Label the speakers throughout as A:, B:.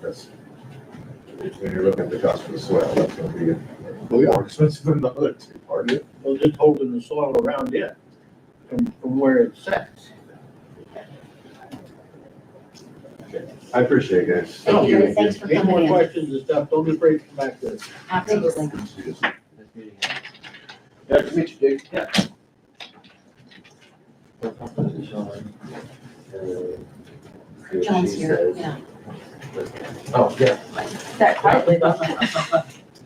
A: That's, when you look at the cost of the soil, that's gonna be more expensive than the other two, aren't it?
B: Well, just holding the soil around it from, from where it sets.
A: I appreciate it, guys.
C: Thank you, thanks for
B: Any more
C: coming in.
B: questions and stuff, don't be afraid to come back to us.
C: Absolutely.
D: Nice to meet you, Dick.
B: Yeah.
A: Uh,
C: John's here, yeah.
E: Oh, yeah.
C: That probably,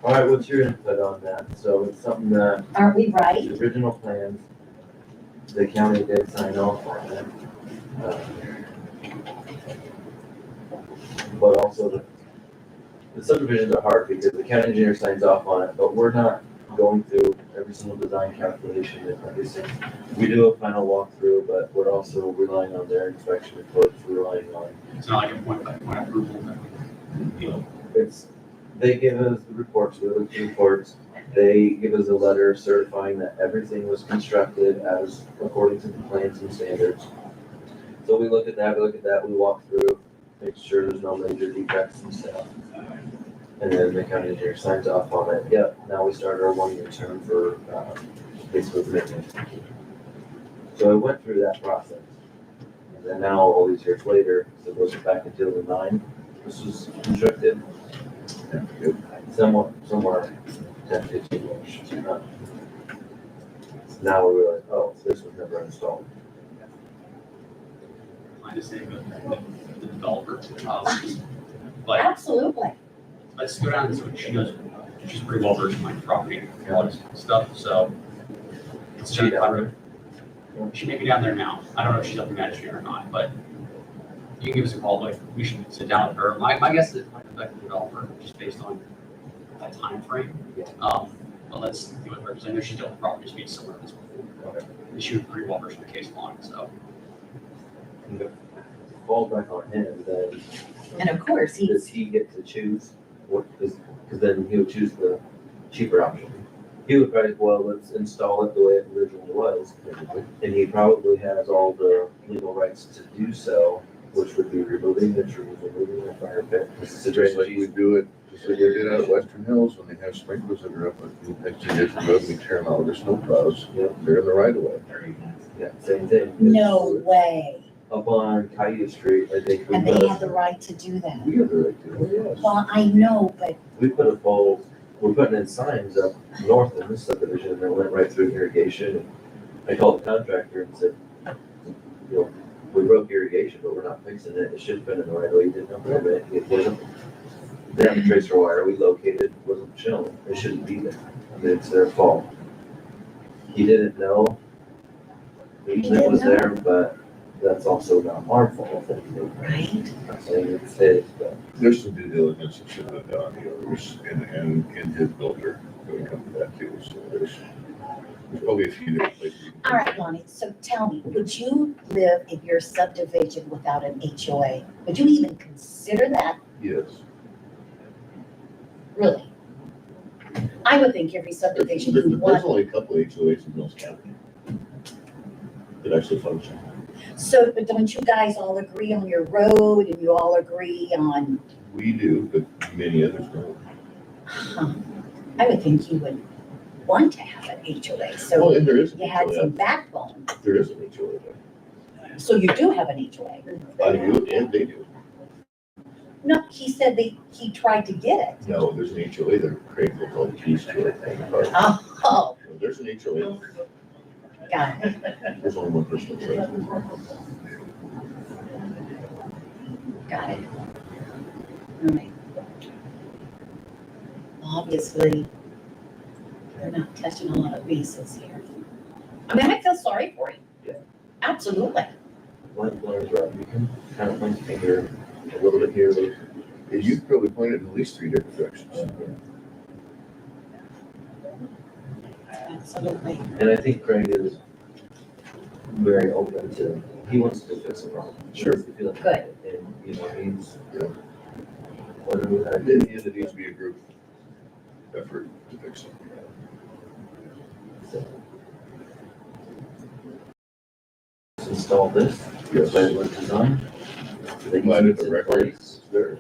E: All right, what's your input on that? So it's something that
C: aren't we right?
E: the original plans, the county did sign off on it. uh, But also the, the subdivisions are hard because the county engineer signs off on it, but we're not going through every single design calculation and everything. We do a final walkthrough, but we're also relying on their inspection reports, relying on
F: It's not like a point by point approval that we, you know,
E: It's, they give us the reports, we look at the reports, they give us a letter certifying that everything was constructed as according to the plans and standards. So we look at that, we look at that, we walk through, make sure there's no major defects and stuff. And then the county engineer signs off on it, yep, now we start our one-year term for, uh, basically maintenance. So I went through that process. And then now, all these years later, so it goes back until the nine, this was constructed somewhat, somewhere ten fifteen inch. Now we realize, oh, this was never installed.
F: I just say, but the developer, um, like,
C: Absolutely.
F: let's go down this one, she does, she's pretty well versed in my property and all this stuff, so. It's Jenny Cloud. She may be down there now, I don't know if she's up in Madison or not, but you can give us a call, like, we should sit down with her, my, my guess is it might affect the developer, just based on that timeframe.
E: Yeah.
F: Um, but let's do it, because I know she's dealt with property disputes somewhere in this before,
E: Okay.
F: and she was pretty well versed in the case law, so.
E: Fall back on him, then
C: And of course, he's,
E: does he get to choose what, because then he'll choose the cheaper option. He would probably, well, let's install it the way it originally was, and he probably has all the legal rights to do so, which would be removing the trees, removing the fire pit. This is a
A: Just
E: drainage
A: like we do it, just like we did out at Western Hills when they have sprinklers that are up, and next to this road, we tear them out with their snowplows,
E: Yep.
A: they're in the right of way.
E: Yeah, same thing.
C: no way.
E: Up on Caillou Street, I think we
C: And they
E: put,
C: had the right to do that.
A: We have the right to, do it, yes.
C: Well, I know, but
E: we put a pole, we're putting in signs up north in this subdivision and it went right through irrigation. And I called the contractor and said, you know, we broke irrigation, but we're not fixing it. It should have been in the right way. You didn't approve it. It wasn't. They have a tracer wire. We located, it wasn't shown. It shouldn't be there. I mean, it's their fault. He didn't know.
C: He
E: It was
C: didn't
E: there, but that's also not our fault.
C: right?
E: I'm saying it's his, but
A: There's some due diligence that should have been done, you know, there's, and, and, and his builder, when it comes to that too, so there's, there's probably a few different places. you can-
C: All right, Lonnie, so tell me, would you live in your subdivision without an HOA? Would you even consider that,
A: Yes,
C: really? I would think every
G: There's
C: subdivision would
G: there's
C: want,
G: only a couple of HOAs in Mills County that actually function.
C: so, but don't you guys all agree on your road and you all agree on,
G: We do, but many others don't.
C: huh? I would think you would want to have an HOA,
G: Well,
C: so
G: and there is an
C: you had
G: HOA,
C: some backbone.
G: there is an HOA.
C: So you do have an HOA?
G: I do, and they do.
C: No, he said they, he tried to get it.
G: No, there's an HOA there, Craig will call the keys to it. But
C: Oh,
G: There's an HOA,
C: got it.
G: there's only one person that's right.
C: Got it. All right. Obviously, we're not touching a lot of bases here. I mean, I feel sorry for you.
E: Yeah.
C: Absolutely.
E: like Blair's right, you can kind of point the finger a little bit here, a little bit
A: and you could probably point it in at least three different directions.
C: Absolutely.
E: And I think Craig is very open to, he wants to fix a problem.
A: Sure.
C: Good.
E: And, you know, he's,
A: you know,
E: what do we
A: At
E: have?
A: the end, it needs to be a group effort to fix it.
E: Let's Install this,
A: Yes.
E: by the design.
A: Provided the record is there.